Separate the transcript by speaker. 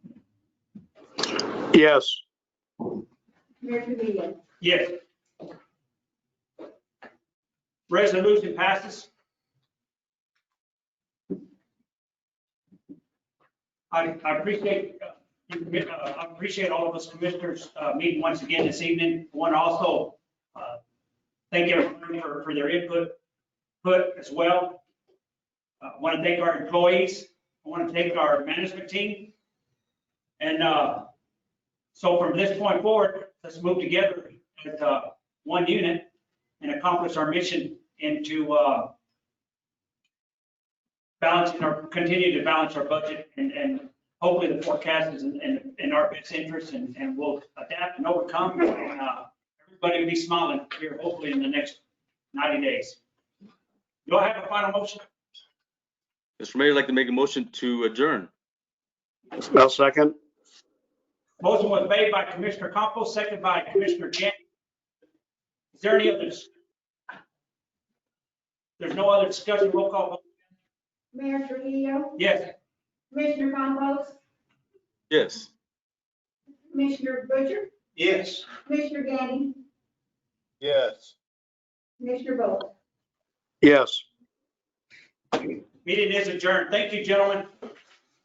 Speaker 1: Yes.
Speaker 2: Mayor Trivia.
Speaker 3: Yes. Resolution passes. I, I appreciate, uh, you, uh, I appreciate all of us commissioners, uh, meeting once again this evening. I Want to also, uh, thank everyone for, for their input, put as well. Uh, I want to thank our employees. I want to thank our management team. And, uh, so from this point forward, let's move together as uh, one unit and accomplish our mission into uh, balancing our, continue to balance our budget and, and hopefully the forecast is in, in- in our best interest and, and we'll adapt and overcome. and uh, Everybody will be smiling here hopefully in the next 90 days. Do I have a final motion?
Speaker 4: Mr. Mayor, I'd like to make a motion to adjourn.
Speaker 1: I'll second.
Speaker 3: Motion was made by Commissioner Campos, second by Commissioner Jan. Is there any others? There's no other discussion, roll call vote.
Speaker 2: Mayor Trivia.
Speaker 3: Yes,
Speaker 2: Commissioner Campos.
Speaker 4: Yes.
Speaker 2: Commissioner Butcher.
Speaker 5: Yes.
Speaker 2: Commissioner Gandy.
Speaker 5: Yes.
Speaker 2: Commissioner Bowe.
Speaker 1: Yes.
Speaker 3: meeting is adjourned. Thank you, gentlemen.